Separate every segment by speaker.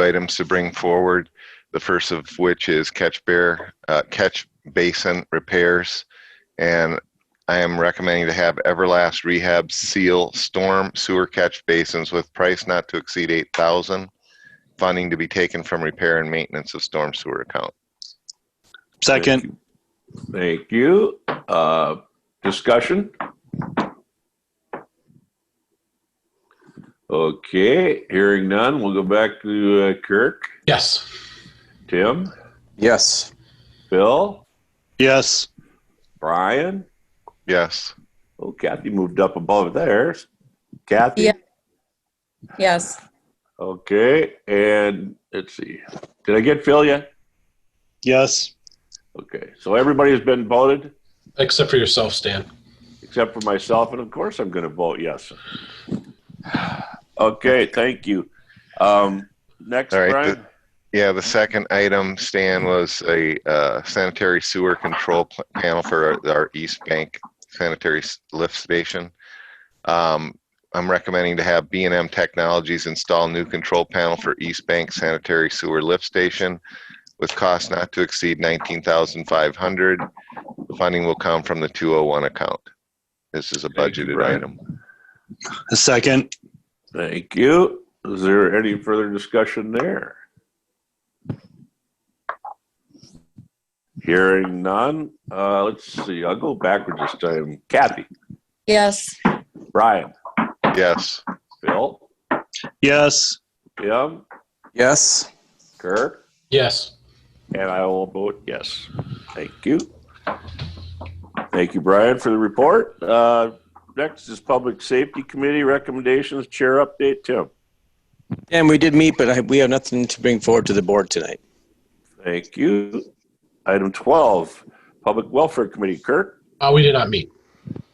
Speaker 1: items to bring forward. The first of which is catch bear, uh, catch basin repairs. And I am recommending to have Everlast Rehab seal storm sewer catch basins with price not to exceed eight thousand. Funding to be taken from repair and maintenance of storm sewer account.
Speaker 2: Second.
Speaker 3: Thank you. Uh, Discussion? Okay, hearing none, we'll go back to uh, Kirk,
Speaker 4: Yes.
Speaker 3: Tim,
Speaker 5: Yes.
Speaker 3: Bill,
Speaker 2: Yes.
Speaker 3: Brian.
Speaker 1: Yes.
Speaker 3: Oh, Kathy moved up above there. Kathy?
Speaker 6: Yeah. Yes.
Speaker 3: Okay, and let's see. Did I get Phil yet?
Speaker 2: Yes.
Speaker 3: Okay, so everybody has been voted
Speaker 4: Except for yourself, Stan.
Speaker 3: except for myself, and of course I'm going to vote yes. Okay, thank you. Um, next,
Speaker 1: All right,
Speaker 3: Brian.
Speaker 1: Yeah, the second item, Stan, was a uh, sanitary sewer control pl- panel for our- our East Bank sanitary s- lift station. Um, I'm recommending to have b and M Technologies install new control panel for East Bank sanitary sewer lift station with cost not to exceed 19,500. The funding will come from the 201 account. This is a
Speaker 3: Thank you,
Speaker 1: budgeted
Speaker 3: Brian.
Speaker 1: item.
Speaker 2: A second.
Speaker 3: Thank you. Is there any further discussion there? Hearing none. Uh, let's see. I'll go backwards this time. Kathy,
Speaker 6: Yes.
Speaker 3: Brian,
Speaker 1: Yes.
Speaker 3: Phil,
Speaker 2: Yes.
Speaker 3: Tim,
Speaker 5: Yes.
Speaker 3: Kirk.
Speaker 4: Yes.
Speaker 3: And I will vote yes. Thank you. Thank you, Brian, for the report. Uh, Next is Public Safety Committee recommendations, chair update, Tim.
Speaker 5: And we did meet, but I, we have nothing to bring forward to the board tonight.
Speaker 3: Thank you. Item 12, Public Welfare Committee, Kirk.
Speaker 4: Uh, we did not meet.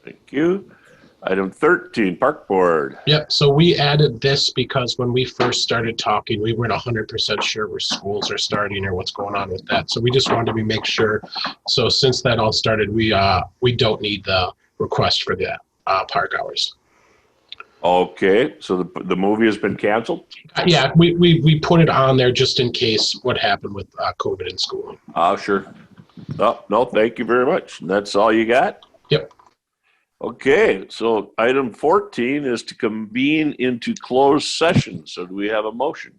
Speaker 3: Thank you. Item 13, Park Board.
Speaker 4: Yep. So we added this because when we first started talking, we weren't hundred percent sure where schools are starting or what's going on with that. So we just wanted to be make sure. So since that all started, we uh we don't need the request for the uh, park hours.
Speaker 3: Okay, so the the movie has been canceled?
Speaker 4: Uh, yeah, we, we we put it on there just in case what happened with uh, COVID in school.
Speaker 3: Oh, sure. No, no, thank you very much. And That's all you got?
Speaker 4: Yep.
Speaker 3: Okay, so item fourteen is to convene into closed session. So do we have a motion?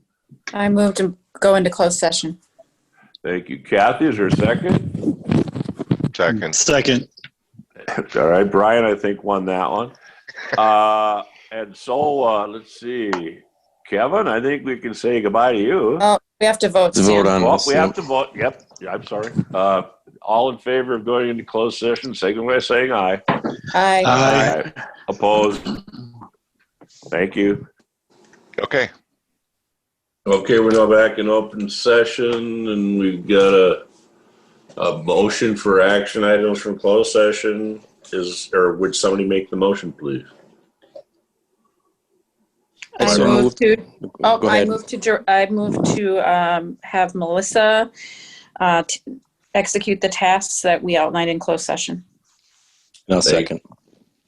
Speaker 6: I moved to go into closed session.
Speaker 3: Thank you, Kathy. Is there a second?
Speaker 1: Second.
Speaker 2: Second.
Speaker 3: All right, Brian, I think won that one. Uh, and so, uh, let's see. Kevin, I think we can say goodbye to you.
Speaker 6: Oh, we have to vote.
Speaker 5: To vote
Speaker 6: Stan.
Speaker 5: on
Speaker 3: Well,
Speaker 5: this.
Speaker 3: we
Speaker 5: yep.
Speaker 3: have to vote. Yep. Yeah, I'm sorry. Uh, all in favor of going into closed session, signal by saying aye.
Speaker 6: Aye.
Speaker 3: Uh,
Speaker 2: Aye.
Speaker 3: Opposed? Thank you.
Speaker 1: Okay.
Speaker 3: Okay, we're now back in open session and we've got a, a motion for action items from closed session. Is, or would somebody make the motion, please?
Speaker 6: I
Speaker 5: So
Speaker 6: move to,
Speaker 5: Go
Speaker 6: oh, I
Speaker 5: ahead.
Speaker 6: move to, dir- I move to um, have Melissa uh, t- execute the tasks that we outlined in closed session.
Speaker 5: No, second.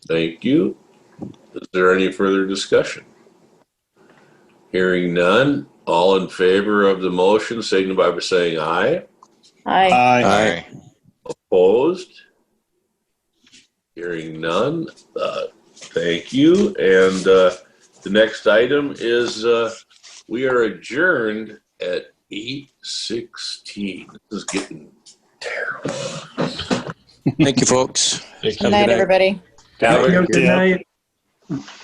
Speaker 3: Thank you. Is there any further discussion? Hearing none, all in favor of the motion signify by saying aye.
Speaker 6: Aye.
Speaker 2: Aye.
Speaker 5: Aye.
Speaker 3: Opposed? Hearing none, uh, thank you. And, uh, the next item is, uh, we are adjourned at eight sixteen. This is getting terrible.
Speaker 5: Thank you, folks.
Speaker 4: Thank you.
Speaker 6: Good night,
Speaker 5: night.
Speaker 6: everybody.
Speaker 3: Have a
Speaker 2: Good night.